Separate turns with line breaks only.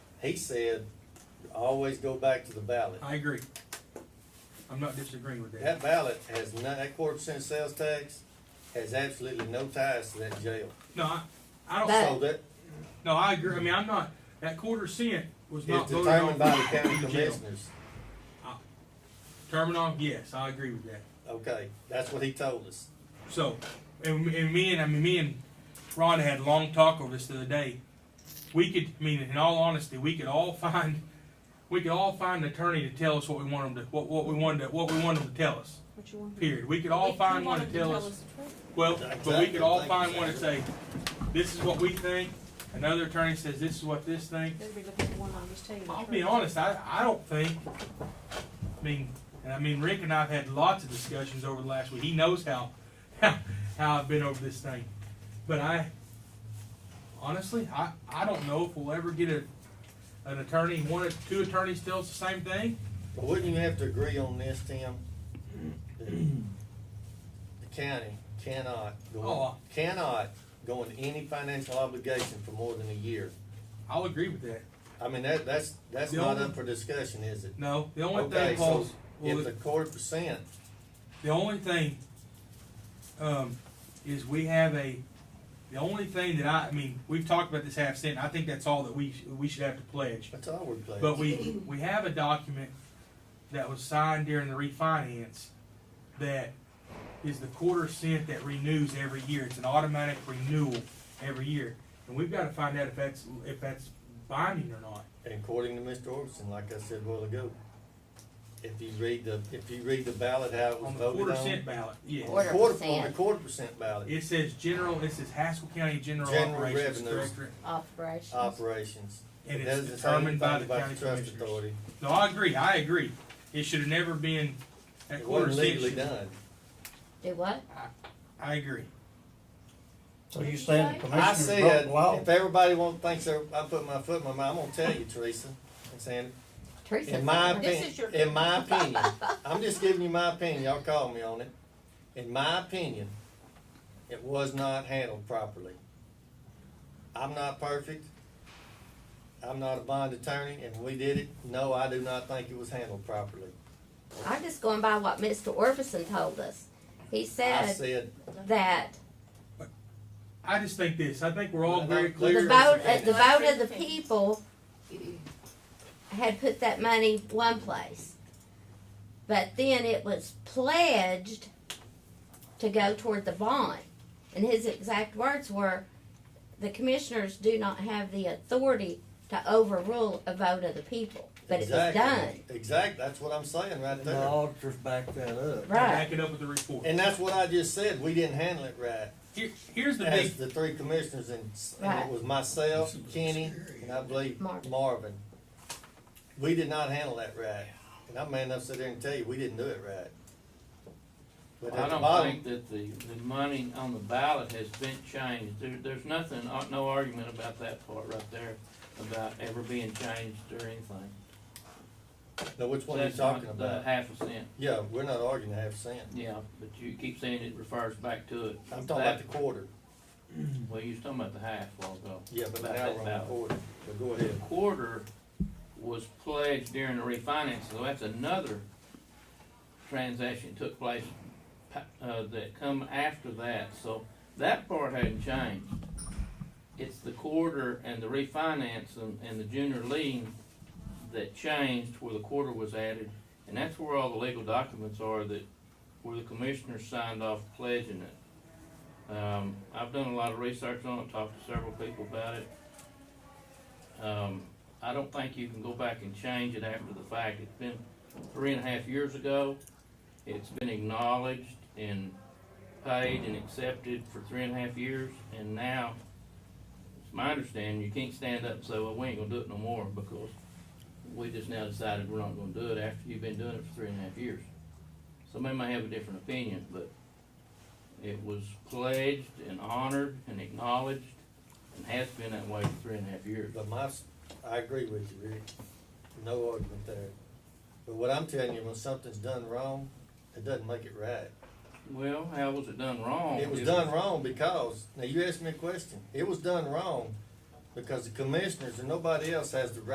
he said, always go back to the ballot.
I agree. I'm not disagreeing with
That
that.
ballot has no, that quarter percent sales tax has absolutely no ties to that jail.
No, I, I don't,
That-
So that
no, I agree. I mean, I'm not, that quarter cent was
is
not voted on.
determined by the county
in jail.
commissioners.
Terminal, yes, I agree with that.
Okay, that's what he told us.
So, and, and me and, I mean, me and Rhonda had a long talk over this the other day. We could, I mean, in all honesty, we could all find, we could all find an attorney to tell us what we want them to, what, what we wanted, to- what we wanted them to tell us,
What you want?
period. We could all find one to tell us. Well, but we could all find one and say, this is what we think, another attorney says this is what this thing.
Better be looking for one, I'll just tell you. the
I'll
truth.
be honest, I, I don't think, I mean, and I mean, Rick and I've had lots of discussions over the last week, he knows how, how, how I've been over this thing. But I, honestly, I, I don't know if we'll ever get a, an attorney, one, or two attorneys tell us the same thing.
But wouldn't you have to agree on this, Tim? That The county cannot go,
Oh.
cannot go into any financial obligation for more than a year.
I'll agree with that.
I mean, that, that's, that's
The
not
only-
up for discussion, is it?
No, the only
Okay,
thing,
so
Paul, well,
if the quarter percent,
The only thing, um, is we have a, the only thing that I, I mean, we've talked about this half cent, I think that's all that we, sh- we should have to pledge.
that's all we're playing.
But we, we have a document that was signed during the refinance that is the quarter cent that renews every year, it's an automatic renewal every year. And we've gotta find out if that's, if that's binding or not.
And according to Mr. Orbison, like I said a while ago, if you read the, if you read the ballot, how it was
On the quarter
voted
cent
on.
ballot, yeah.
Or-
the
Quarter
quarter- On the
percent.
quarter percent ballot,
It says general, it says Haskell County General
General
Operations
revenues.
Directorate.
Operations.
operations.
And
It
it's
doesn't say anything
determined by the
about
county
trust
commissioners.
authority.
No, I agree, I agree. It should have never been at
It
quarter
wasn't
cent.
legally
should-
done.
Do what?
I agree.
So you saying
I
the commissioners broke
said,
the law?
if everybody won't, thinks they're- I put my foot in my mouth, I'm gonna tell you, Teresa, I'm saying,
Teresa.
in my
This
opinion,
is your-
in my opinion, I'm just giving you my opinion, y'all call me on it. In my opinion, it was not handled properly. I'm not perfect. I'm not a bond attorney, and we did it. No, I do not think it was handled properly.
I'm just going by what Mr. Orbison told us. He
I
said
said,
that
I just think this, I think we're all
Well, the
very
the
clear.
vote,
is
uh,
the
the vote of the
thing.
people had put that money one place. But then it was pledged to go toward the bond. And his exact words were, the commissioners do not have the authority to overrule a vote of the people. But it was done.
exactly, exactly, that's what I'm saying right
And the
there.
auditors backed that up.
Right.
Back it up with the report.
And that's what I just said, we didn't handle it right.
Here, here's the big,
As the three commissioners and, and it
Right.
was myself, Kenny, and I believe
Marvin.
Marvin. We did not handle that right, and I'm man enough to sit there and tell you, we didn't do it right. But
I
at the
don't
bottom,
think that the, the money on the ballot has been changed. There, there's nothing, uh, no argument about that part right there, about ever being changed or anything.
now which one are you
That's not
talking about?
The half a cent,
Yeah, we're not arguing a half cent,
yeah, but you keep saying it refers back to it.
I'm talking about the
That-
quarter,
Well, you was talking about the half a while ago.
yeah, but
About
now
that
we're on the
ballot.
quarter, but go
The
ahead.
quarter was pledged during the refinance, so that's another transaction took place, pa- uh, that come after that, so that part hadn't changed. It's the quarter and the refinance and, and the junior lien that changed where the quarter was added, and that's where all the legal documents are that, where the commissioners signed off pledging it. Um, I've done a lot of research on it, talked to several people about it. Um, I don't think you can go back and change it after the fact. It's been three and a half years ago. It's been acknowledged and paid and accepted for three and a half years, and now, it's my understanding, you can't stand up and say, well, we ain't gonna do it no more, because we just now decided we're not gonna do it after you've been doing it for three and a half years. Somebody may have a different opinion, but it was pledged and honored and acknowledged, and has been that way for three and a half years.
But my, s- I agree with you, Rick, no argument there. But what I'm telling you, when something's done wrong, it doesn't make it right.
Well, how was it done wrong?
It was done wrong because, now you asked me a question, it was done wrong because the commissioners and nobody else has the right